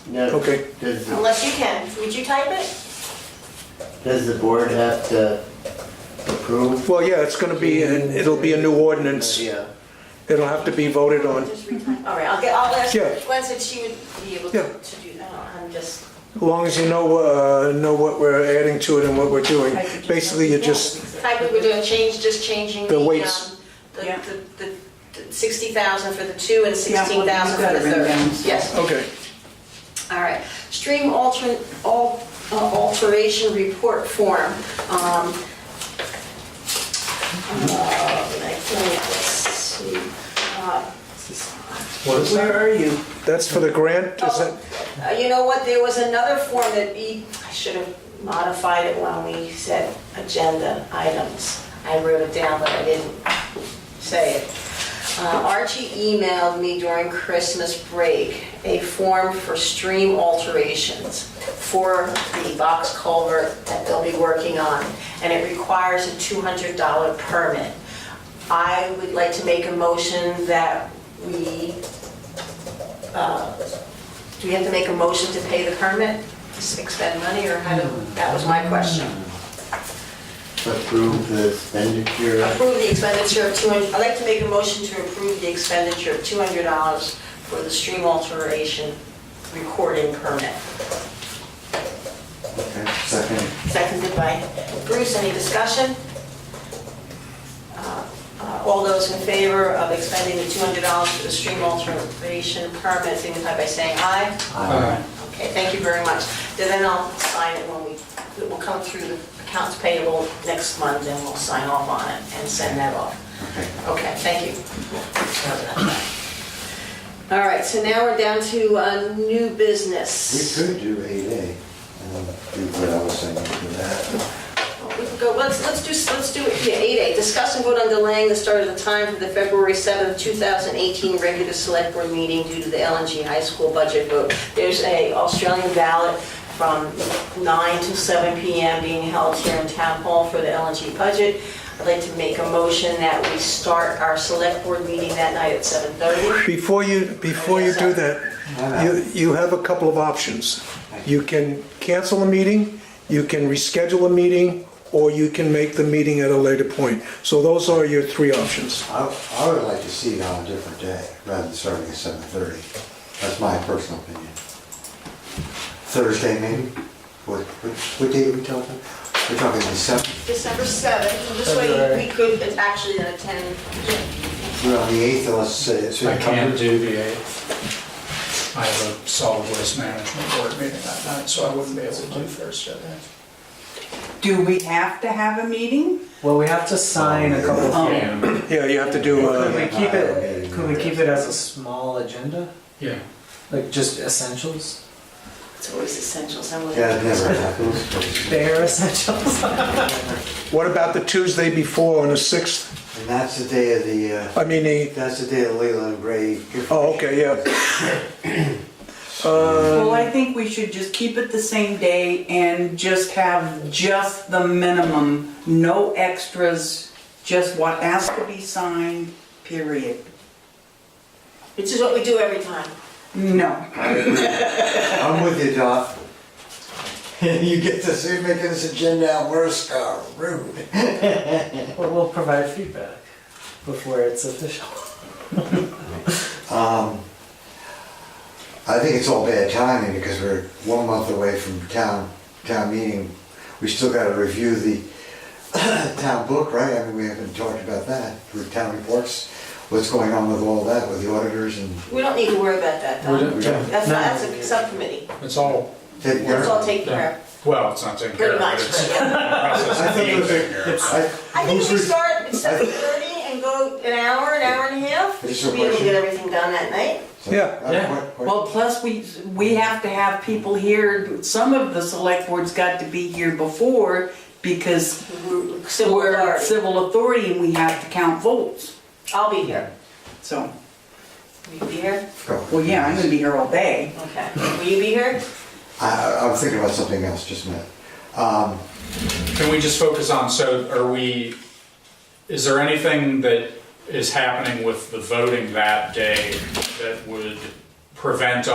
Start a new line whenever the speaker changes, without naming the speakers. Now,
Okay.
Does,
Unless you can, would you type it?
does the board have to approve?
Well, yeah, it's gonna be, an- it'll be a new ordinance.
Yeah.
It'll have to be voted on.
Just retype. All right, I'll get, I'll ask
Yeah.
Gwen said she would be able
Yeah.
to to do that. I'm just,
As long as you know, uh, know what we're adding to it and what we're doing. Basically, you just,
type we were doing change, just changing
The
the,
weights.
um, the,
Yeah.
the, the- the 60,000 for the two and
Yeah, well,
16,000
you've got
for the
it written
third.
down.
Yes,
okay,
all right. Stream alter, al- uh, alteration report form. Um, uh, I think, let's see, uh,
What is
Where are you?
that's for the grant, is that?
Oh, uh, You know what, there was another form that we, I should have modified it when we said agenda items. I wrote it down, but I didn't say it. Uh, Archie emailed me during Christmas break a form for stream alterations for the box culvert that they'll be working on, and it requires a $200 permit. I would like to make a motion that we uh, do we have to make a motion to pay the permit, to expend money, or how do, that was my question.
Approve the expenditure?
Approve the expenditure of 200, I'd like to make a motion to approve the expenditure of $200 for the stream alteration recording permit.
Okay, second.
Seconded by Bruce, any discussion? Uh, uh, All those in favor of expending the $200 for the stream alteration permit, signify by saying aye.
Aye.
Okay, thank you very much. Then I'll sign it when we, it will come through the accounts payable next month, and we'll sign off on it and send that off. Okay, thank you. All right, so now we're down to uh, new
We
business.
could do eight A and do what I was saying to that.
We can go, let's, let's do, let's do, yeah, 8A, discuss and vote on delaying the start of the time for the February 7th, 2018 regular select board meeting due to the LNG high school budget vote. There's a Australian ballot from 9 to 7 PM being held here in Town Hall for the LNG budget. I'd like to make a motion that we start our select board meeting that night at 7:30.
Before you, before you do that, you, you have a couple of options. You can cancel a meeting, you can reschedule a meeting, or you can make the meeting at a later point. So those are your three options.
I, I would like to see it on a different day rather than starting at seven thirty. That's my personal opinion. Thursday maybe? What, what, what day are we talking? We're talking the seventh,
December 7th, this way we could actually then attend.
we're on the eighth unless uh, it's.
I can't do the 8th. I have a solid waste management board meeting that night, so I wouldn't be able to do Thursday.
Do we have to have a meeting?
Well, we have to sign a couple
Oh.
of things.
Yeah, you have to do,
Could we
uh,
keep it, could we keep it as a small agenda?
Yeah,
Like just essentials?
It's always essential, so I'm gonna-
That never happens.
Bare essentials?
what about the Tuesday before on the 6th?
And that's the day of the, uh,
I mean, the,
that's the day of Leland Gray.
oh, okay, yeah. Uh,
Well, I think we should just keep it the same day and just have just the minimum, no extras, just what has to be signed, period.
Which is what we do every time.
No.
I'm with you, Doc. You get to see making this agenda out worse, Carl, rude.
Well, we'll provide feedback before it's official.
Um, I think it's all bad timing because we're one month away from town, town meeting. We still gotta review the town book, right? I mean, we haven't talked about that, with town reports, what's going on with all that, with the auditors and.
We don't need to worry about that,
We
though.
don't-
we don't
That's, not- that's a subcommittee.
it's all,
take care
That's all
of it.
taken care of,
well, it's not taken care
pretty
of, but
much. right?
it's the process
I
of
think
being
it was-
taken care of.
I-
I think if we
who's re-
start at seven thirty and go an hour, an hour and a half, we
Is there
should
a
be able to get
question?
everything done that night.
Yeah.
Uh, what- what-
Well, plus we, we have to have people here, some of the select board's got to be here before because
We're- Civil
we're
authority.
civil authority and we have to count votes,
I'll be here.
so,
Will you be here?
go.
well, yeah, I'm gonna be here all day.
Okay. Will you be here?
I, I- I'm thinking about something else, just a minute. Um,
Can we just focus on, so are we, is there anything that is happening with the voting that day that would prevent